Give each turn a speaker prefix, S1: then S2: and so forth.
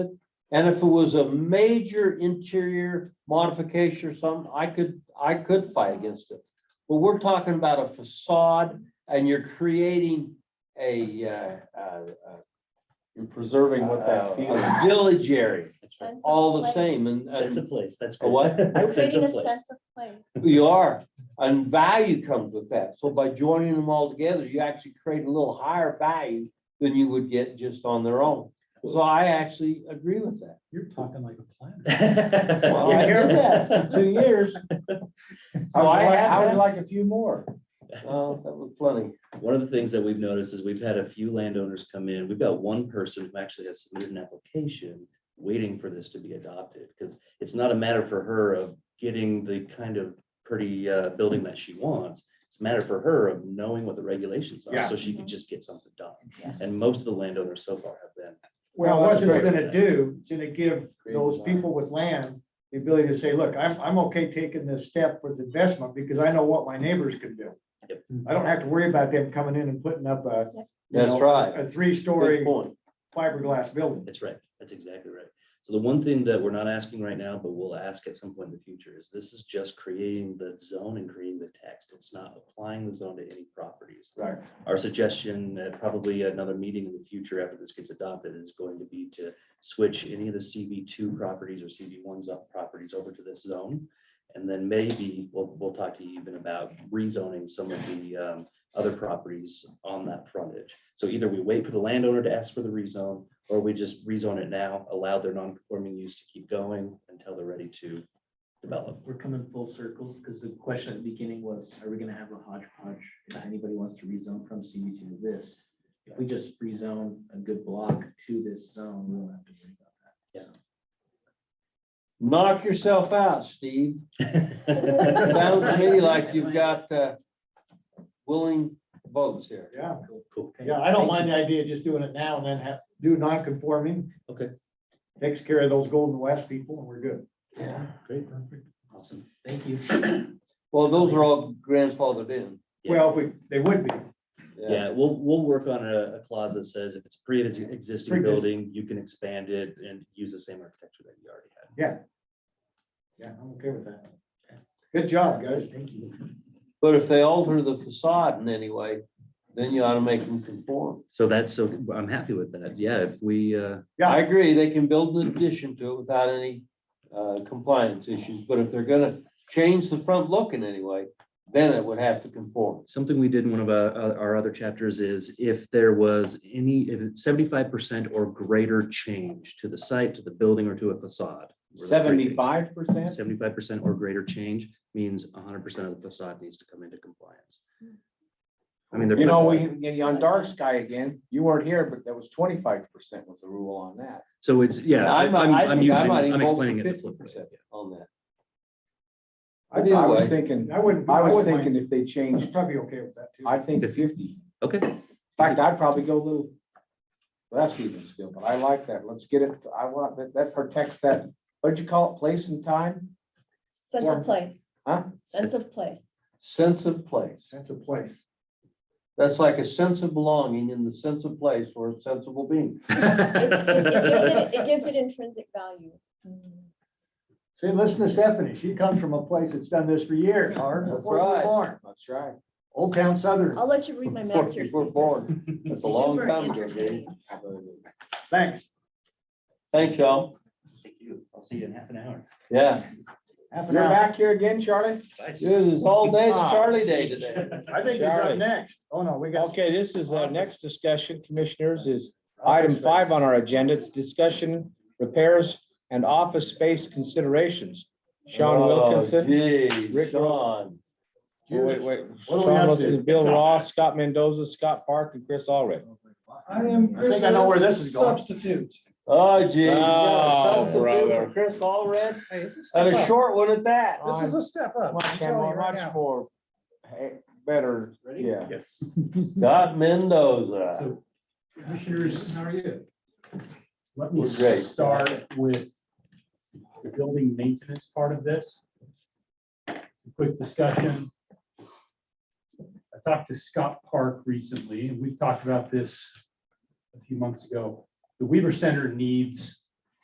S1: And if it was a major interior modification or something, I could, I could fight against it. But we're talking about a facade and you're creating a, uh, uh, uh,
S2: You're preserving what that
S1: a-
S2: feeling.
S1: a village area,
S3: Sense of
S1: all the
S3: place.
S1: same, and,
S4: Sense
S1: and
S4: of place, that's.
S1: A what?
S4: good.
S3: We're
S4: Sense
S3: creating
S4: of
S3: a
S4: place.
S3: sense of place.
S1: you are, and value comes with that. So by joining them all together, you actually create a little higher value than you would get just on their own. So I actually agree with that.
S5: You're talking like a planner.
S1: Well, I did that for two years. So I have
S2: I would
S1: that.
S2: like a few more.
S1: Oh, that was plenty.
S4: One of the things that we've noticed is we've had a few landowners come in. We've got one person who actually has submitted an application waiting for this to be adopted, because it's not a matter for her of getting the kind of pretty uh, building that she wants. It's a matter for her of knowing what the regulations are,
S6: Yeah.
S4: so she can just get something done. And most of the landowners so far have been.
S6: Well,
S2: Well,
S6: what
S2: that's
S6: it's
S2: great.
S6: gonna do, it's gonna give
S2: Great
S6: those
S2: design.
S6: people with land the ability to say, look, I'm, I'm okay taking this step with investment because I know what my neighbors can do.
S4: Yep.
S6: I don't have to worry about them coming in and putting up a. you
S1: That's
S6: know,
S1: right.
S6: A
S1: Good
S6: three-story
S1: point.
S6: fiberglass building.
S4: That's right. That's exactly right. So the one thing that we're not asking right now, but we'll ask at some point in the future is this is just creating the zone and creating the text. It's not applying the zone to any properties.
S6: Right.
S4: Our suggestion, at probably another meeting in the future after this gets adopted, is going to be to switch any of the CB two properties or CB ones up properties over to this zone. And then maybe we'll, we'll talk to you even about rezoning some of the um, other properties on that frontage. So either we wait for the landowner to ask for the rezone, or we just rezone it now, allow their non-conforming use to keep going until they're ready to develop.
S7: Uh, We're coming full circle, because the question at the beginning was, are we gonna have a hodgepodge if anybody wants to rezone from CB two to this? If we just rezone a good block to this zone, we won't have to worry about that.
S1: Knock yourself out, Steve. Sounds to me like you've got uh, willing votes here.
S6: Yeah,
S4: Cool.
S6: yeah, I don't mind the idea of just doing it now and then have, do non-conforming.
S4: Okay.
S6: Takes care of those Golden West people and we're good.
S1: Yeah.
S4: Great. Awesome.
S7: Thank you.
S1: Well, those are all grandfathered in.
S4: Yeah.
S6: Well, if we, they would be.
S4: Yeah, we'll, we'll work on a a clause that says if it's pre-existing
S6: Pre-exist-
S4: building, you can expand it and use the same architecture that you already had.
S6: Yeah, I'm okay with that. Good job, guys.
S7: Thank you.
S1: But if they alter the facade in any way, then you ought to make them conform.
S4: So that's, so I'm happy with that. Yeah, if we, uh,
S1: I agree, they can build an addition to it without any uh, compliance issues, but if they're gonna change the front look in any way, then it would have to conform.
S4: something we did in one of our, uh, our other chapters is if there was any, if seventy-five percent or greater change to the site, to the building or to a facade.
S2: Seventy-five percent?
S4: Seventy-five percent or greater change means hundred percent of the facade needs to come into compliance. I mean, they're.
S2: You know,
S4: pretty-
S2: we, and on dark sky again, you weren't here, but that was twenty-five percent was the rule on that.
S4: So it's, yeah,
S1: I
S4: I'm,
S1: might-
S4: I'm
S1: I
S4: I'm
S1: think I
S4: using,
S1: might even
S4: I'm
S1: go up to
S4: explaining it. the flip way,
S1: 50%.
S4: yeah.
S1: On that.
S2: I
S1: Either
S2: I
S1: way,
S2: was thinking,
S6: I wouldn't.
S2: I was
S6: wouldn't mind-
S2: thinking if they changed,
S6: I'd be okay with that too.
S2: I think
S4: Fifty.
S2: fifty.
S4: Okay.
S2: In fact, I'd probably go a little less even still, but I like that. Let's get it, I want, that, that protects that, what'd you call it, place and time?
S3: Sense
S2: Form.
S3: of place,
S2: Huh?
S3: sense of place.
S1: Sense of place.
S6: Sense of place.
S1: That's like a sense of belonging and the sense of place for a sensible being.
S3: It's- It it gives it- it gives it intrinsic value. Mm.
S6: See, listen to Stephanie. She comes from a place that's done this for years, hard
S1: That's
S6: before we were
S1: right.
S6: born.
S2: That's right.
S6: Old Town Southern.
S8: Oh.
S3: I'll let you read my
S1: Before
S3: master's.
S1: you were
S3: thesis.
S1: born. That's a long
S3: Super
S1: time ago,
S3: entertaining.
S1: Dave.
S6: Thanks.
S1: Thanks, y'all.
S4: Thank you. I'll see you in half an hour.
S1: Yeah,
S6: Half an
S2: You're
S6: hour.
S2: back here again, Charlie?
S1: it is all day, it's Charlie Day today.
S6: I think he's up
S2: Charlie.
S6: next. Oh, no, we got.
S9: Okay, this is our next discussion, commissioners, is item five oh, on our agenda. It's discussion, repairs, and office space considerations. Sean
S1: Oh,
S9: Wilkinson.
S1: Gee,
S9: Rick
S1: Sean.
S9: oh, Wait, wait,
S6: What do we have
S9: Sean
S6: to-
S9: Wilkinson, Bill Ross, Scott Mendoza, Scott Park, and Chris Allred.
S8: I am
S6: I think I know where this is
S8: Chris's
S6: going.
S8: substitute.
S1: Oh, gee. you got a
S9: Oh,
S1: substitute for
S9: brother.
S1: Chris Allred,
S8: Hey, this is a
S1: and
S8: step
S1: a
S8: up.
S1: short one at that.
S8: This is a step up. I'm
S2: Much,
S8: telling you right
S2: much
S8: now.
S2: more, eh, better, yeah.
S4: Yes.
S1: Scott Mendoza.
S5: Commissioners, how are you? Let
S1: We're
S5: me
S1: great.
S5: start with the building maintenance part of this. It's a quick discussion. I talked to Scott Park recently, and we've talked about this a few months ago. The Weaver Center needs